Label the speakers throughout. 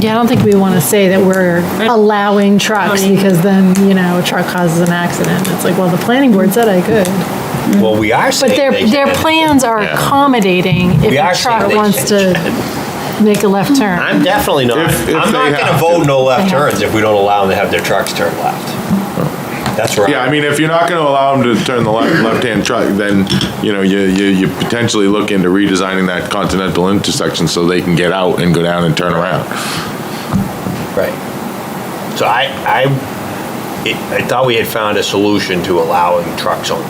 Speaker 1: Yeah, I don't think we want to say that we're allowing trucks because then, you know, a truck causes an accident. It's like, well, the planning board said I could.
Speaker 2: Well, we are saying
Speaker 1: But their,
Speaker 2: they
Speaker 1: their
Speaker 2: can.
Speaker 1: plans are
Speaker 2: Yeah.
Speaker 1: accommodating if
Speaker 2: We are
Speaker 1: a
Speaker 2: saying
Speaker 1: truck
Speaker 2: they
Speaker 1: wants
Speaker 2: can.
Speaker 1: to make a left turn.
Speaker 2: I'm definitely not,
Speaker 3: If- if
Speaker 2: I'm not
Speaker 3: they
Speaker 2: gonna
Speaker 3: have
Speaker 2: vote
Speaker 3: to.
Speaker 2: no left
Speaker 1: They have
Speaker 2: turns if we don't allow them to have their trucks turn left. That's right.
Speaker 3: Yeah, I mean, if you're not gonna allow them to turn the left, left-hand truck, then, you know, you, you, you potentially look into redesigning that continental intersection so they can get out and go down and turn around.
Speaker 2: Right. So I, I, it- I thought we had found a solution to allowing trucks only.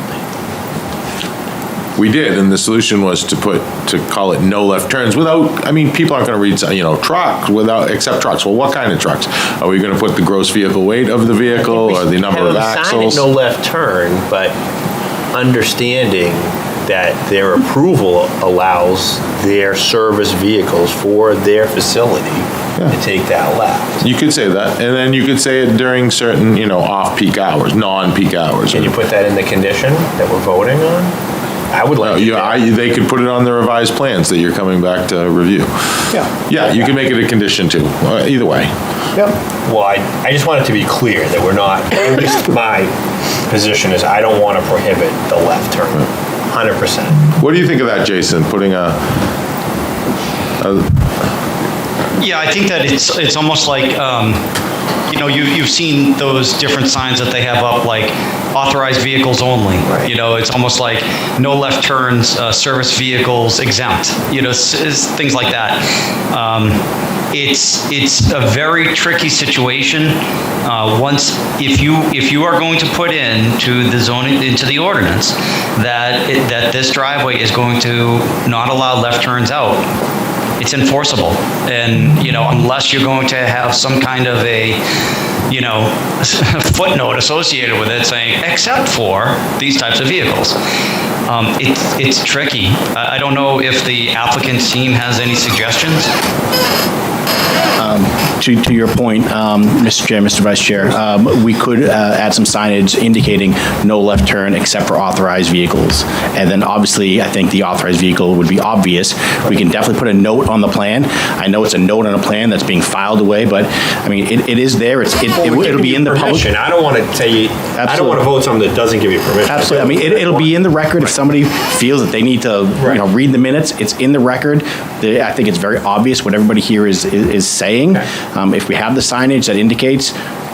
Speaker 3: We did, and the solution was to put, to call it no left turns without, I mean, people aren't gonna read, you know, truck, without, except trucks. Well, what kind of trucks? Are we gonna put the gross vehicle weight of the vehicle or Oh, the number
Speaker 2: Have
Speaker 3: of
Speaker 2: them sign it,
Speaker 3: axles?
Speaker 2: No left turn, but understanding that their approval allows their service vehicles for their facility to
Speaker 3: Yeah.
Speaker 2: take that left.
Speaker 3: You could say that, and then you could say it during certain, you know, off-peak hours, non-peak hours.
Speaker 2: Can you put that in the condition that we're voting on? I would
Speaker 3: No,
Speaker 2: like.
Speaker 3: you, Uh, I, they could put it on the revised plans that you're coming back to review.
Speaker 2: Yeah.
Speaker 3: Yeah, you can make it a condition too, uh, either way.
Speaker 2: Well, I, I just want it to be clear that we're not, at least my position is I don't want to prohibit the left turn, 100%.
Speaker 3: What do you think of that, Jason, putting a, uh,
Speaker 4: Yeah, I think that it's, it's almost like, um, you know, you, you've seen those different signs that they have up, like authorized vehicles only. You know, it's almost like no left turns, uh, service vehicles exempt, you know, s- s- things like that. Um, It's, it's a very tricky situation. Uh, Once, if you, if you are going to put in to the zoning, into the ordinance, that, it- that this driveway is going to not allow left turns out, it's enforceable. And, you know, unless you're going to have some kind of a, you know, footnote associated with it saying, except for these types of vehicles. Um, It's, it's tricky. I I don't know if the applicant's team has any suggestions.
Speaker 5: To, to your point, um, Mr. Chair, Mr. Vice Chair, um, we could uh, add some signage indicating no left turn except for authorized vehicles. And then obviously, I think the authorized vehicle would be obvious. We can definitely put a note on the plan. I know it's a note on a plan that's being filed away, but I mean, it, it is there. It's, it-
Speaker 2: Well, we're
Speaker 5: it'll be
Speaker 2: giving
Speaker 5: in
Speaker 2: you
Speaker 5: the public.
Speaker 2: permission. I don't want to tell you, I don't want
Speaker 5: Absolutely.
Speaker 2: to vote something that doesn't give you permission.
Speaker 5: Absolutely. I mean, it, it'll be in the record if somebody feels that they need to, you know,
Speaker 2: Right.
Speaker 5: read the minutes. It's in the record. The- I think it's very obvious what everybody here is, is is saying. Um, If we have the signage that indicates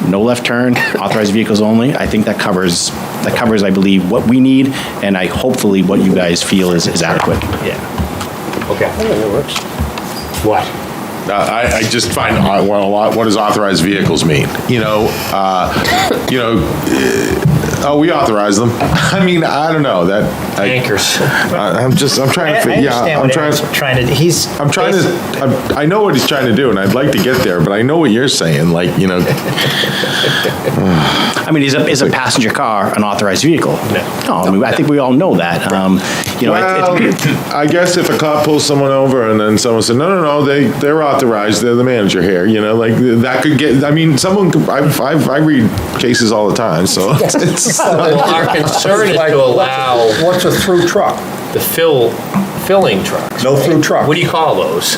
Speaker 5: no left turn, authorized vehicles only, I think that covers, that covers, I believe, what we need and I, hopefully what you guys feel is, is adequate.
Speaker 2: Yeah. Okay. It works. What?
Speaker 3: I, I just find, uh, well, a lot, what does authorized vehicles mean? You know, uh, you know, eh, oh, we authorize them. I mean, I don't know, that, I,
Speaker 2: Anchors.
Speaker 3: I- I'm just, I'm trying to,
Speaker 6: I
Speaker 3: fi- yeah,
Speaker 6: understand
Speaker 3: I'm
Speaker 6: what
Speaker 3: trying,
Speaker 6: Eric's trying to, he's.
Speaker 3: I'm trying to, I'm- I know what he's trying to do and I'd like to get there, but I know what you're saying, like, you know,
Speaker 5: I mean, is a, is a passenger car an authorized vehicle? No. I mean, I think we all know that. Um, You know, it- it-
Speaker 3: Well, I guess if a cop pulls someone over and then someone said, no, no, no, they, they're authorized, they're the manager here, you know, like, that could get, I mean, someone, could- I, I, I read cases all the time, so. it's-
Speaker 2: Well, our concern is to allow
Speaker 6: What's a through truck?
Speaker 2: the fill, filling trucks.
Speaker 6: No through truck.
Speaker 2: What do you call those?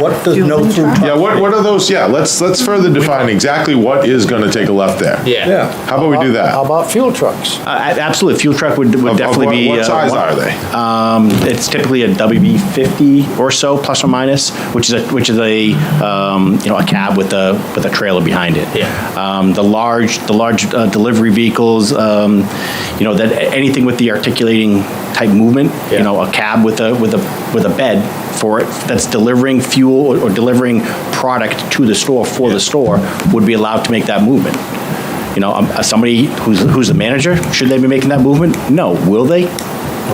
Speaker 6: What does no through
Speaker 3: Yeah,
Speaker 6: truck?
Speaker 3: what, what are those, yeah, let's, let's further define exactly what is gonna take a left there. How about we do that?
Speaker 6: How about fuel trucks?
Speaker 5: Uh, a- Absolutely, fuel truck would
Speaker 3: Of-
Speaker 5: would
Speaker 3: of
Speaker 5: definitely
Speaker 3: what-
Speaker 5: be.
Speaker 3: What
Speaker 5: uh,
Speaker 3: size
Speaker 5: one-
Speaker 3: are they?
Speaker 5: Um, It's typically a WB50 or so, plus or minus, which is a, which is a, um, you know, a cab with a, with a trailer behind it.
Speaker 2: Yeah.
Speaker 5: Um, The large, the large uh, delivery vehicles, um, you know, that, anything with the articulating type movement, you
Speaker 2: Yeah.
Speaker 5: know, a cab with a, with a, with a bed for it, that's delivering fuel or- or delivering product to the store, for the store, would be allowed to make that movement. You know, um, uh, somebody who's, who's the manager, should they be making that movement? No. Will they?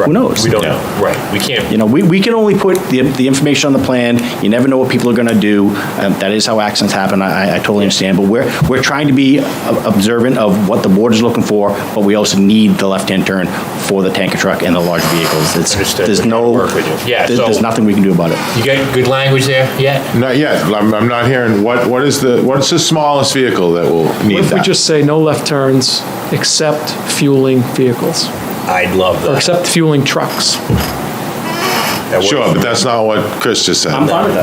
Speaker 5: Who knows?
Speaker 2: We don't know. Right. We can't.
Speaker 5: You know, we, we can only put the, the information on the plan. You never know what people are going to do. Um, That is how accidents happen. I, I totally understand. But we're, we're trying to be ob- observant of what the board is looking for, but we also need the left-hand turn for the tanker truck and the large vehicles. It's,
Speaker 2: Understood.
Speaker 5: there's no,
Speaker 2: Work with you. Yeah,
Speaker 5: there- there's
Speaker 2: so-
Speaker 5: nothing we can do about it.
Speaker 2: You got good language there yet?
Speaker 3: Not yet, but I'm, I'm not hearing, what, what is the, what's the smallest vehicle that will need
Speaker 7: What if we
Speaker 3: that?
Speaker 7: just say no left turns except fueling vehicles,
Speaker 2: I'd love
Speaker 7: or
Speaker 2: that.
Speaker 7: except fueling trucks?
Speaker 2: That works.
Speaker 3: Sure, but that's not what Chris just said.
Speaker 5: I'm fine with that.